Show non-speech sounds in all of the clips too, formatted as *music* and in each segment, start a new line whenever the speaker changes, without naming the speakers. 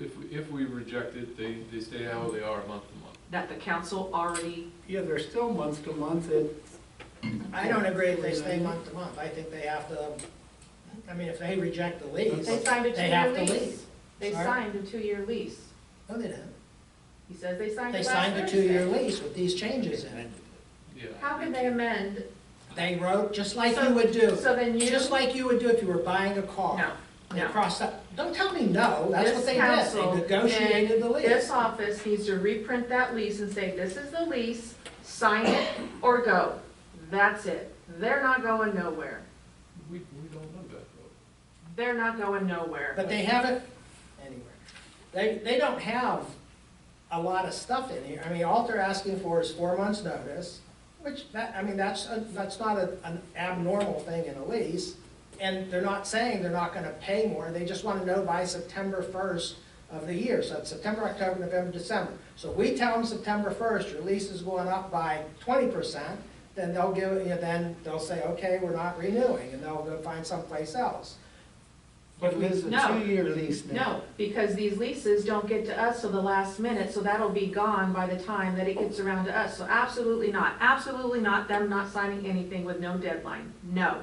if, we- if we reject it, they, they stay how they are month to month.
that the council already,
Yeah, they're still month to month, it,
I don't agree if they stay month to month, I think they have to, I mean, if they reject the lease,
They signed a
They have
two-year
to
lease.
leave.
They
Sorry?
signed a two-year lease.
no, they didn't.
He says they signed
They
it last
signed
Thursday.
a two-year lease with these changes in it.
Yeah.
How can they amend?
They wrote, just like you would do,
So then you,
just like you would do if you were buying a car.
no,
They
no.
crossed up, don't tell me no, that's
This
what they did,
council
they negotiated the
This
lease.
office needs to reprint that lease and say, this is the lease, sign it or go. That's it. They're not going nowhere.
We, we don't know that though.
They're not going nowhere.
But they haven't, anyway, they, they don't have a lot of stuff in here, I mean, all they're asking for is four months' notice, which, that, I mean, that's, a- that's not a- an abnormal thing in a lease, and they're not saying they're not gonna pay more, they just wanna know by September first of the year, so it's September, October, November, December. So we tell them September first, your lease is going up by twenty percent, then they'll give, you know, then they'll say, okay, we're not renewing, and they'll go find someplace else.
but Liz, a
No.
two-year lease now.
No, because these leases don't get to us till the last minute, so that'll be gone by the time that it gets around to us. So absolutely not, absolutely not them not signing anything with no deadline, no.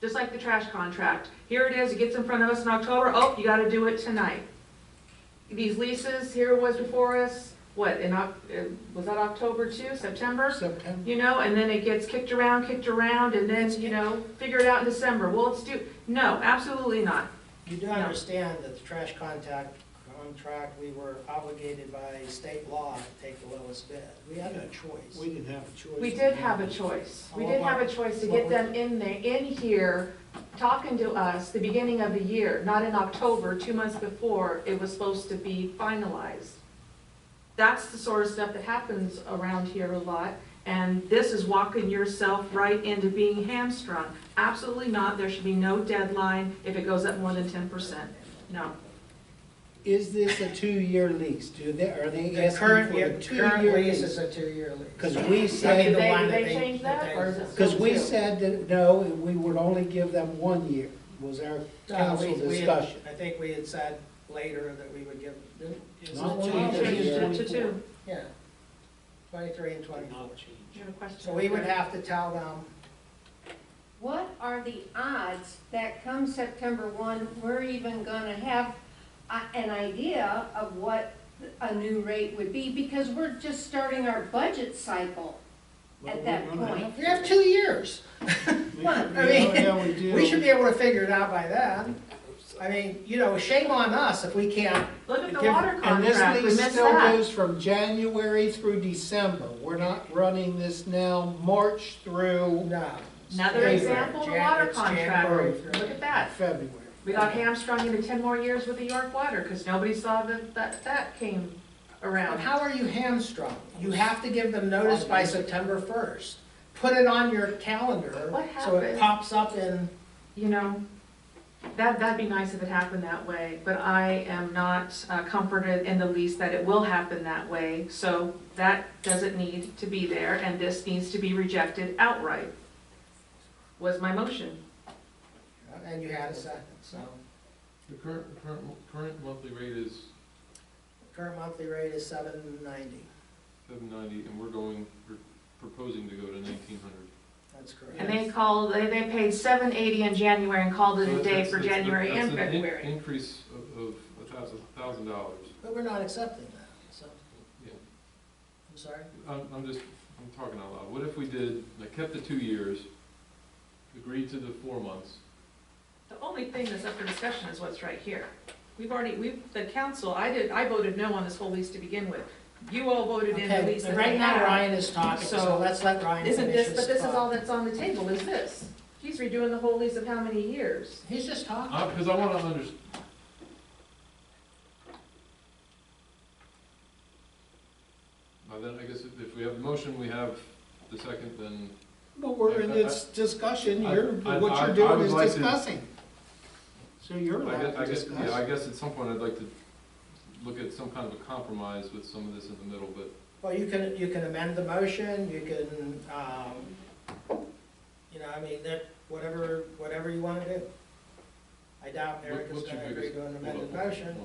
Just like the trash contract, here it is, it gets in front of us in October, oh, you gotta do it tonight. These leases, here it was before us, what, in Oc, uh, was that October too, September?
September,
You know, and then it gets kicked around, kicked around, and then, you know, figure it out in December, well, it's due, no, absolutely not.
You do understand that the trash contact contract, we were obligated by state law to take the lowest bid. We had no
we
choice.
didn't have a choice.
We did have a choice. We did have a choice to get them in there, in here, talking to us the beginning of the year, not in October, two months before it was supposed to be finalized. That's the sort of stuff that happens around here a lot, and this is walking yourself right into being hamstrung. Absolutely not, there should be no deadline if it goes up more than ten percent, no.
Is this a two-year lease? Do they, are they
The
asking
current,
for a
the current
two-year
lease
lease?
is a two-year lease.
Because we
I mean,
said,
the
Did they-
one
did they change that,
they-
or is it still-
because we said that, no, we would only give them one year, was our
Uh, we-
council
we had-
discussion.
I think we had said later that we would give, didn't-
Not
isn't it
one year.
changed?
Changed it to two.
Yeah, twenty-three and twenty-four.
You have a question?
So we would have to tell them,
What are the odds that come September one, we're even gonna have a- an idea of what a new rate would be? Because we're just starting our budget cycle
Well,
at
we're
that
gonna
point.
have-
we have two years.
Yeah,
I mean,
yeah, we do.
*laughs* We should be able to figure it out by then. I mean, you know, shame on us if we can't
Look at the
Give-
water contract,
And
we
this
missed
lease still
that.
goes from January through December. We're not running this now March through
No.
Another
January.
example, the water contract, look at that.
February.
We got hamstrung into ten more years with the York Water, because nobody saw that, that, that came
And
around.
how are you hamstrung? You have to give them notice by September first. Put it on your calendar,
What
so it
happened?
pops up in,
You know, that, that'd be nice if it happened that way, but I am not uh, comforted in the least that it will happen that way. So that doesn't need to be there, and this needs to be rejected outright, was my motion.
and you had a second, so.
The current, current, current monthly rate is
Current monthly rate is seven ninety,
seven ninety and we're going, we're proposing to go to nineteen hundred.
that's
And
correct.
they called, they, they paid seven eighty in January and called it a day for January and February.
Increase of, of a thousand, thousand dollars.
But we're not accepting that, so.
Yeah.
I'm sorry?
I'm, I'm just, I'm talking out loud. What if we did, like, kept the two years, agreed to the four months?
The only thing that's up for discussion is what's right here. We've already, we've, the council, I did, I voted no on this whole lease to begin with. You all voted in the
Okay,
lease
but
that
right
they
now
had.
Ryan is talking,
So,
so let's let Ryan finish
Isn't this,
his
but this is all
thought.
that's on the table, is this. He's redoing the whole lease of how many years?
He's just talking.
Uh, cause I wanna under, Well, then, I guess if, if we have the motion, we have the second, then,
But we're in this discussion, you're,
I- I-
what
I- I
you're doing
would
is
like to-
discussing. So you're
I guess, I
allowed to
guess, yeah, I
discuss.
guess at some point I'd like to look at some kind of a compromise with some of this in the middle, but
Well, you can, you can amend the motion, you can, um, you know, I mean, that, whatever, whatever you wanna do. I doubt
What-
Eric is
what's your
gonna agree
biggest-
to an
hold
amended
on, hold on,
motion.